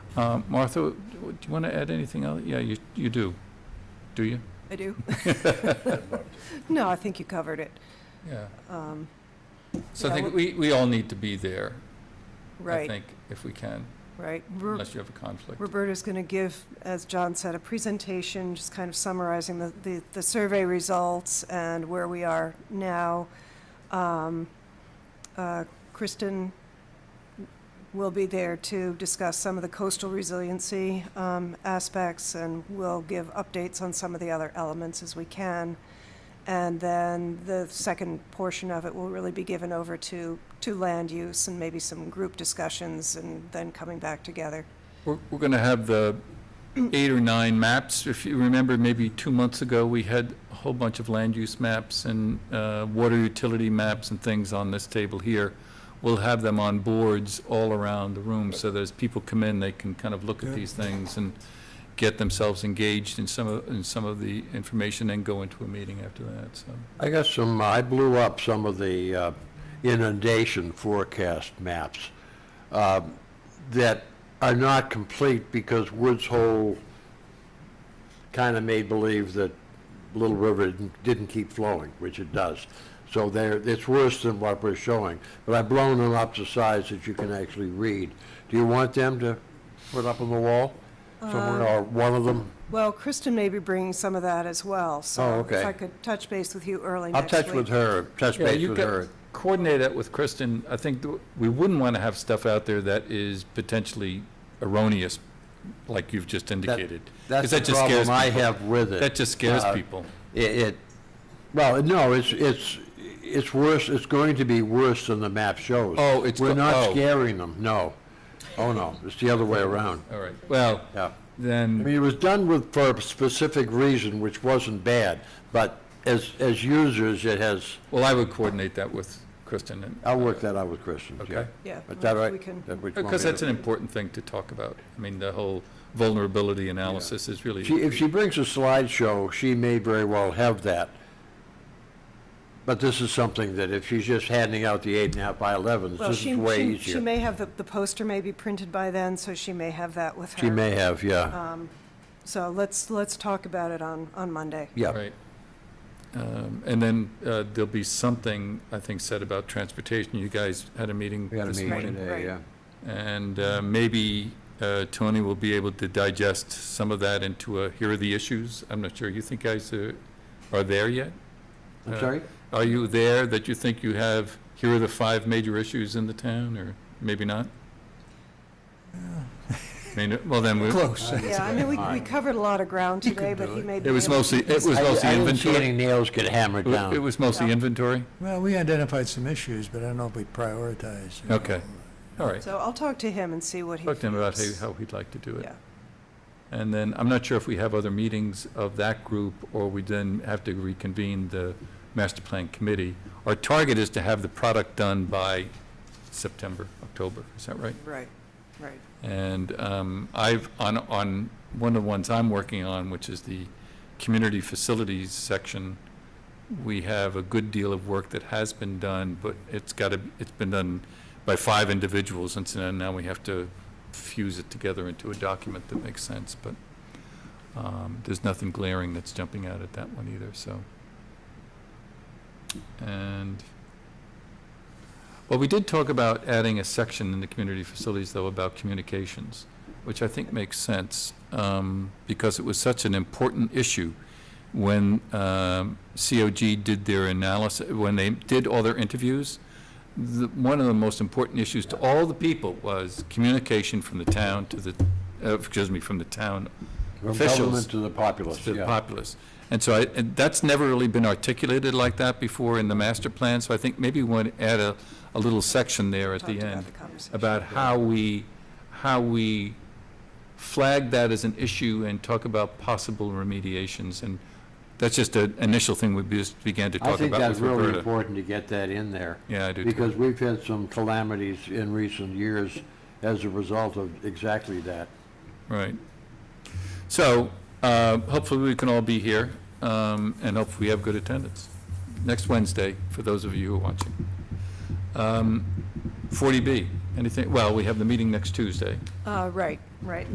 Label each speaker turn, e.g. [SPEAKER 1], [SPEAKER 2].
[SPEAKER 1] Um, Martha, do you want to add anything else? Yeah, you, you do, do you?
[SPEAKER 2] I do. No, I think you covered it.
[SPEAKER 1] Yeah.
[SPEAKER 2] Um,
[SPEAKER 1] So I
[SPEAKER 2] Yeah,
[SPEAKER 1] think we, we all need to be there, I
[SPEAKER 2] Right,
[SPEAKER 1] think, if we can,
[SPEAKER 2] right. Ru-
[SPEAKER 1] unless you have a conflict.
[SPEAKER 2] Roberta's going to give, as John said, a presentation, just kind of summarizing the, the, the survey results and where we are now. Um, uh, Kristen will be there to discuss some of the coastal resiliency um, aspects, and we'll give updates on some of the other elements as we can. And then the second portion of it will really be given over to, to land use and maybe some group discussions, and then coming back together.
[SPEAKER 1] We're, we're going to have the eight or nine maps. If you remember, maybe two months ago, we had a whole bunch of land use maps and uh, water utility maps and things on this table here. We'll have them on boards all around the room, so that as people come in, they can kind of look at
[SPEAKER 3] Good.
[SPEAKER 1] these things and get themselves engaged in some of, in some of the information, and go into a meeting after that, so.
[SPEAKER 3] I got some, I blew up some of the uh, inundation forecast maps um, that are not complete because Woods Hole kind of made believe that Little River didn't- didn't keep flowing, which it does. So there, it's worse than what we're showing, but I've blown them up to size that you can actually read. Do you want them to put up on the wall somewhere,
[SPEAKER 2] Uh,
[SPEAKER 3] or one of them?
[SPEAKER 2] Well, Kristen may be bringing some of that as well,
[SPEAKER 3] Oh,
[SPEAKER 2] so
[SPEAKER 3] okay.
[SPEAKER 2] if I could touch base with you early
[SPEAKER 3] I'll
[SPEAKER 2] next week.
[SPEAKER 3] touch with her, touch
[SPEAKER 1] Yeah,
[SPEAKER 3] base
[SPEAKER 1] you
[SPEAKER 3] with
[SPEAKER 1] got-
[SPEAKER 3] her.
[SPEAKER 1] Coordinate that with Kristen. I think th- we wouldn't want to have stuff out there that is potentially erroneous, like you've just indicated. 'Cause
[SPEAKER 3] That's
[SPEAKER 1] that
[SPEAKER 3] the
[SPEAKER 1] just scares
[SPEAKER 3] problem I
[SPEAKER 1] people.
[SPEAKER 3] have with it.
[SPEAKER 1] That just scares
[SPEAKER 3] Uh,
[SPEAKER 1] people.
[SPEAKER 3] It, it, well, no, it's, it's, it's worse, it's going to be worse than the map shows.
[SPEAKER 1] Oh, it's
[SPEAKER 3] We're
[SPEAKER 1] go-
[SPEAKER 3] not
[SPEAKER 1] oh.
[SPEAKER 3] scaring them, no. Oh, no, it's the other way around,
[SPEAKER 1] All right, well,
[SPEAKER 3] yeah. I
[SPEAKER 1] then,
[SPEAKER 3] mean, it was done with, for a specific reason, which wasn't bad, but as, as users, it has,
[SPEAKER 1] well, I would coordinate that with Kristen and.
[SPEAKER 3] I'll work that out with Christian, yeah.
[SPEAKER 1] Okay.
[SPEAKER 2] Yeah,
[SPEAKER 3] Is
[SPEAKER 2] well,
[SPEAKER 3] that right?
[SPEAKER 2] we can,
[SPEAKER 3] That what you want
[SPEAKER 1] Because
[SPEAKER 3] me to-
[SPEAKER 1] that's an important thing to talk about. I mean, the whole vulnerability analysis is really.
[SPEAKER 3] She, if she brings a slideshow, she may very well have that. But this is something that if she's just handing out the eight and a half by elevens,
[SPEAKER 2] well,
[SPEAKER 3] this
[SPEAKER 2] she,
[SPEAKER 3] is
[SPEAKER 2] she-
[SPEAKER 3] way
[SPEAKER 2] she
[SPEAKER 3] easier.
[SPEAKER 2] may have, the the poster may be printed by then, so she may have that with her. uh,
[SPEAKER 3] She may have, yeah,
[SPEAKER 2] So let's, let's talk about it on, on Monday.
[SPEAKER 3] yeah.
[SPEAKER 1] Right. Um, And then uh, there'll be something, I think, said about transportation. You guys had a meeting
[SPEAKER 3] We had a
[SPEAKER 1] this morning.
[SPEAKER 3] meeting today,
[SPEAKER 2] Right.
[SPEAKER 3] yeah.
[SPEAKER 1] And uh, maybe uh, Tony will be able to digest some of that into a, here are the issues. I'm not sure, you think guys are, are there yet?
[SPEAKER 3] I'm
[SPEAKER 1] Uh,
[SPEAKER 3] sorry?
[SPEAKER 1] Are you there that you think you have, here are the five major issues in the town, or maybe not? I mean, well, then, we-
[SPEAKER 4] Close.
[SPEAKER 2] Yeah, I mean, we, we covered a lot of ground today, but he may be.
[SPEAKER 1] it was
[SPEAKER 2] able-
[SPEAKER 1] mostly, it was
[SPEAKER 3] I-
[SPEAKER 1] mostly
[SPEAKER 3] I didn't see any
[SPEAKER 1] inventory.
[SPEAKER 3] nails get hammered
[SPEAKER 1] It
[SPEAKER 3] down.
[SPEAKER 1] was mostly
[SPEAKER 2] Yeah.
[SPEAKER 1] inventory?
[SPEAKER 4] Well, we identified some issues, but I don't know if we prioritized. you know.
[SPEAKER 1] Okay, all right.
[SPEAKER 2] So I'll talk to him and see what he.
[SPEAKER 1] Talk to him about how
[SPEAKER 2] feels.
[SPEAKER 1] how he'd like to do it.
[SPEAKER 2] Yeah,
[SPEAKER 1] And then, I'm not sure if we have other meetings of that group, or we then have to reconvene the master plan committee. Our target is to have the product done by September, October, is that right?
[SPEAKER 2] right, right.
[SPEAKER 1] And um, I've, on, on one of the ones I'm working on, which is the community facilities section, we have a good deal of work that has been done, but it's got to, it's been done by five individuals, and so now we have to fuse it together into a document that makes sense, but um, there's nothing glaring that's jumping out at that one either, so. And, well, we did talk about adding a section in the community facilities, though, about communications, which I think makes sense, um, because it was such an important issue when um, COG did their analysis, when they did all their interviews, the- one of the most important issues to all the people was communication from the town to the, uh, excuse me, from the town
[SPEAKER 3] From
[SPEAKER 1] officials
[SPEAKER 3] government to the populace,
[SPEAKER 1] to the
[SPEAKER 3] yeah.
[SPEAKER 1] populace. And so I, and that's never really been articulated like that before in the master plan, so I think maybe we want to add a, a little section there at the
[SPEAKER 2] Talked about
[SPEAKER 1] end
[SPEAKER 2] the conversation.
[SPEAKER 1] about how we, how we flag that as an issue and talk about possible remediations. And that's just an initial thing we just began to
[SPEAKER 3] I
[SPEAKER 1] talk
[SPEAKER 3] think
[SPEAKER 1] about
[SPEAKER 3] that's
[SPEAKER 1] with
[SPEAKER 3] really
[SPEAKER 1] Roberta.
[SPEAKER 3] important to get that in there.
[SPEAKER 1] Yeah, I do too.
[SPEAKER 3] Because we've had some calamities in recent years as a result of exactly that.
[SPEAKER 1] Right. So, uh, hopefully we can all be here, um, and hopefully we have good attendance. Next Wednesday, for those of you who are watching. Um, 40B, anything, well, we have the meeting next Tuesday.
[SPEAKER 2] Uh, right, right.